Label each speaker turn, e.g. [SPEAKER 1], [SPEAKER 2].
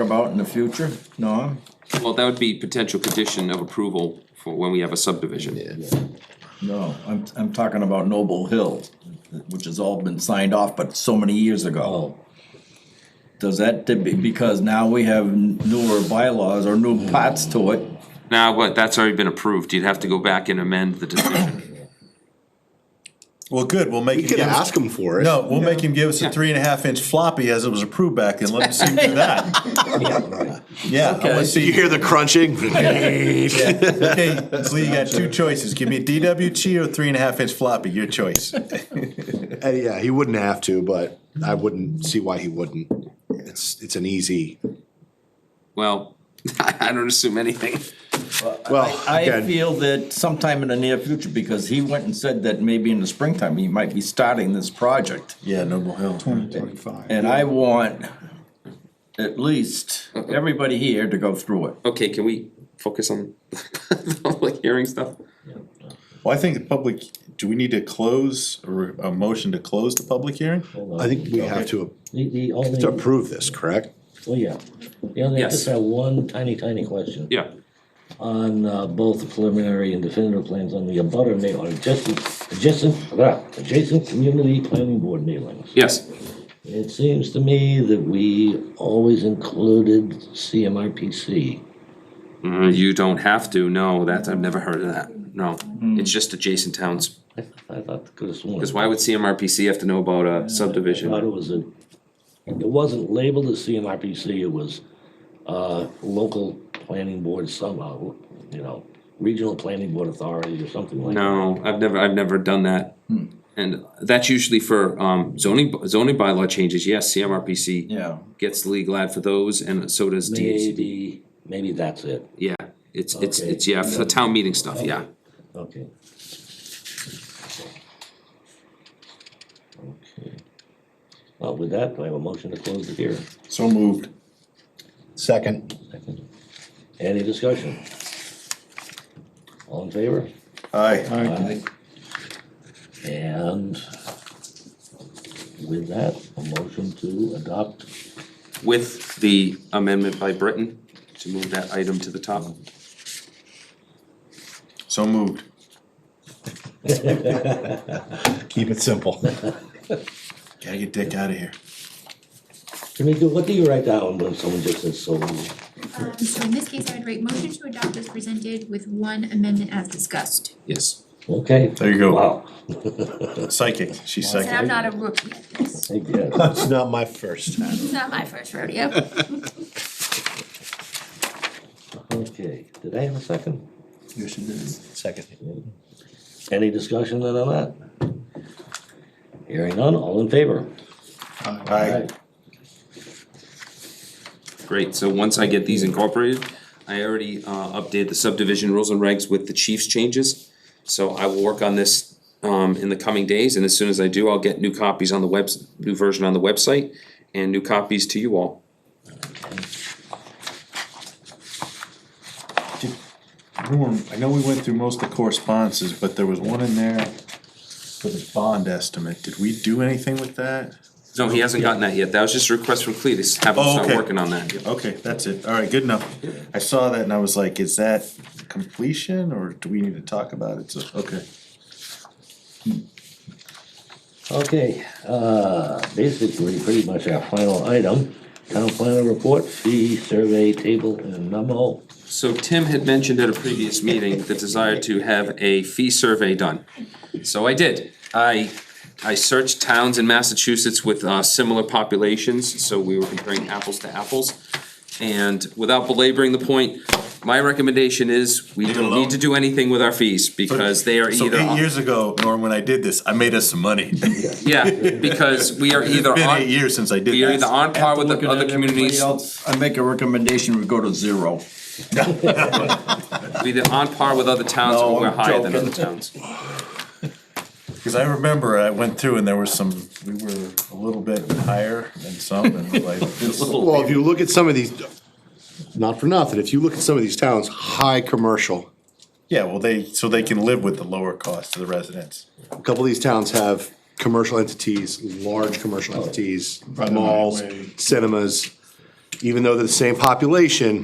[SPEAKER 1] about in the future, Norm?
[SPEAKER 2] Well, that would be potential condition of approval for when we have a subdivision.
[SPEAKER 1] No, I'm, I'm talking about Noble Hill, which has all been signed off, but so many years ago. Does that, because now we have newer bylaws or new parts to it,
[SPEAKER 2] Now, what, that's already been approved, you'd have to go back and amend the decision.
[SPEAKER 3] Well, good, we'll make
[SPEAKER 4] You
[SPEAKER 3] him
[SPEAKER 4] can
[SPEAKER 3] give us,
[SPEAKER 4] ask them for it.
[SPEAKER 3] no, we'll make him give us a three and a half inch floppy as it was approved back then, let him see through that. Yeah, I wanna
[SPEAKER 4] You
[SPEAKER 3] see,
[SPEAKER 4] hear the crunching?
[SPEAKER 3] okay, so you got two choices, give me a DWG or three and a half inch floppy, your choice.
[SPEAKER 4] Uh, Yeah, he wouldn't have to, but I wouldn't see why he wouldn't. It's, it's an easy,
[SPEAKER 2] Well, I don't assume anything.
[SPEAKER 4] well,
[SPEAKER 1] I
[SPEAKER 4] again,
[SPEAKER 1] feel that sometime in the near future, because he went and said that maybe in the springtime, he might be starting this project.
[SPEAKER 3] Yeah, Noble Hill.
[SPEAKER 1] And I want at least everybody here to go through it.
[SPEAKER 2] Okay, can we focus on the public hearing stuff?
[SPEAKER 3] Well, I think the public, do we need to close, or a motion to close the public hearing?
[SPEAKER 4] I think we have to,
[SPEAKER 5] The, the
[SPEAKER 4] to
[SPEAKER 5] only,
[SPEAKER 4] approve this, correct?
[SPEAKER 5] well, yeah, the only, I just
[SPEAKER 2] Yes.
[SPEAKER 5] have one tiny, tiny question.
[SPEAKER 2] Yeah,
[SPEAKER 5] On, uh, both the preliminary and definitive plans on the abutter mail, or adjacent, adjacent, blah, adjacent community planning board mailings.
[SPEAKER 2] yes,
[SPEAKER 5] It seems to me that we always included CMRPC.
[SPEAKER 2] Mm, you don't have to, no, that's, I've never heard of that, no, it's just adjacent towns.
[SPEAKER 5] I, I thought, could have sworn.
[SPEAKER 2] Cause why would CMRPC have to know about a subdivision?
[SPEAKER 5] thought it was a, it wasn't labeled as CMRPC, it was, uh, local planning board somehow, you know, regional planning board authority or something like that.
[SPEAKER 2] No, I've never, I've never done that. And that's usually for um zoning, zoning bylaw changes, yes, CMRPC.
[SPEAKER 1] Yeah.
[SPEAKER 2] Gets the legal ad for those and so does DHCD,
[SPEAKER 5] Maybe, maybe that's it,
[SPEAKER 2] yeah, it's, it's,
[SPEAKER 5] Okay.
[SPEAKER 2] it's, yeah, for the town meeting stuff, yeah.
[SPEAKER 5] okay. Okay. Well, with that, do I have a motion to close the hearing?
[SPEAKER 3] So moved.
[SPEAKER 4] Second.
[SPEAKER 5] Second. Any discussion? All in favor?
[SPEAKER 3] Aye.
[SPEAKER 5] Aye. And with that, a motion to adopt,
[SPEAKER 2] With the amendment by Britton to move that item to the top.
[SPEAKER 3] So moved.
[SPEAKER 4] Keep it simple.
[SPEAKER 3] Gotta get Dick out of here.
[SPEAKER 5] can we do, what do you write down when someone just says so? moved"?
[SPEAKER 6] Um, so in this case, I would write motion to adopt as presented with one amendment as discussed.
[SPEAKER 2] Yes.
[SPEAKER 5] Okay.
[SPEAKER 3] There you go.
[SPEAKER 5] Wow.
[SPEAKER 3] Psychic, she's
[SPEAKER 6] And I'm
[SPEAKER 3] psychic.
[SPEAKER 6] not a rookie at this,
[SPEAKER 5] I guess.
[SPEAKER 4] It's not my first time.
[SPEAKER 6] it's not my first rodeo.
[SPEAKER 5] Okay, did I have a second?
[SPEAKER 4] Second.
[SPEAKER 5] Any discussion then on that? Hearing none, all in favor?
[SPEAKER 3] Aye.
[SPEAKER 2] Great, so once I get these incorporated, I already uh updated the subdivision rules and regs with the chief's changes. So I will work on this um in the coming days, and as soon as I do, I'll get new copies on the webs, new version on the website and new copies to you all.
[SPEAKER 3] Norm, I know we went through most of the correspondences, but there was one in there for the bond estimate. Did we do anything with that?
[SPEAKER 2] No, he hasn't gotten that yet, that was just a request from Cletus, have him
[SPEAKER 3] Oh,
[SPEAKER 2] start
[SPEAKER 3] okay.
[SPEAKER 2] working on that.
[SPEAKER 3] Okay, that's it. All right, good enough. I saw that and I was like, is that completion or do we need to talk about it? So, okay.
[SPEAKER 5] Okay, uh, basically, pretty much our final item, town planner report, fee survey table and memo.
[SPEAKER 2] So Tim had mentioned at a previous meeting the desire to have a fee survey done. So I did. I, I searched towns in Massachusetts with uh, similar populations, so we were comparing apples to apples. And without belaboring the point, my recommendation is we don't need to do anything with our fees because they are
[SPEAKER 3] So
[SPEAKER 2] either.
[SPEAKER 3] eight years ago, Norm, when I did this, I made us some money. It's
[SPEAKER 2] Yeah, because we are either
[SPEAKER 3] been eight
[SPEAKER 2] on,
[SPEAKER 3] years since I did
[SPEAKER 2] we are either
[SPEAKER 3] this.
[SPEAKER 2] on par with the
[SPEAKER 1] Looking
[SPEAKER 2] other
[SPEAKER 1] at everybody
[SPEAKER 2] communities.
[SPEAKER 1] else, I make a recommendation, we go to zero.
[SPEAKER 2] We're either on par with other towns
[SPEAKER 1] No,
[SPEAKER 2] or we're
[SPEAKER 1] I'm
[SPEAKER 2] higher than
[SPEAKER 1] joking.
[SPEAKER 2] other towns.
[SPEAKER 3] Cause I remember I went through and there was some, we were a little bit higher than some and like. this-
[SPEAKER 4] Well, if you look at some of these, not for nothing, if you look at some of these towns, high commercial.
[SPEAKER 3] Yeah, well, they, so they can live with the lower cost to the residents.
[SPEAKER 4] A couple of these towns have commercial entities, large commercial entities, malls, cinemas. even though they're the same population,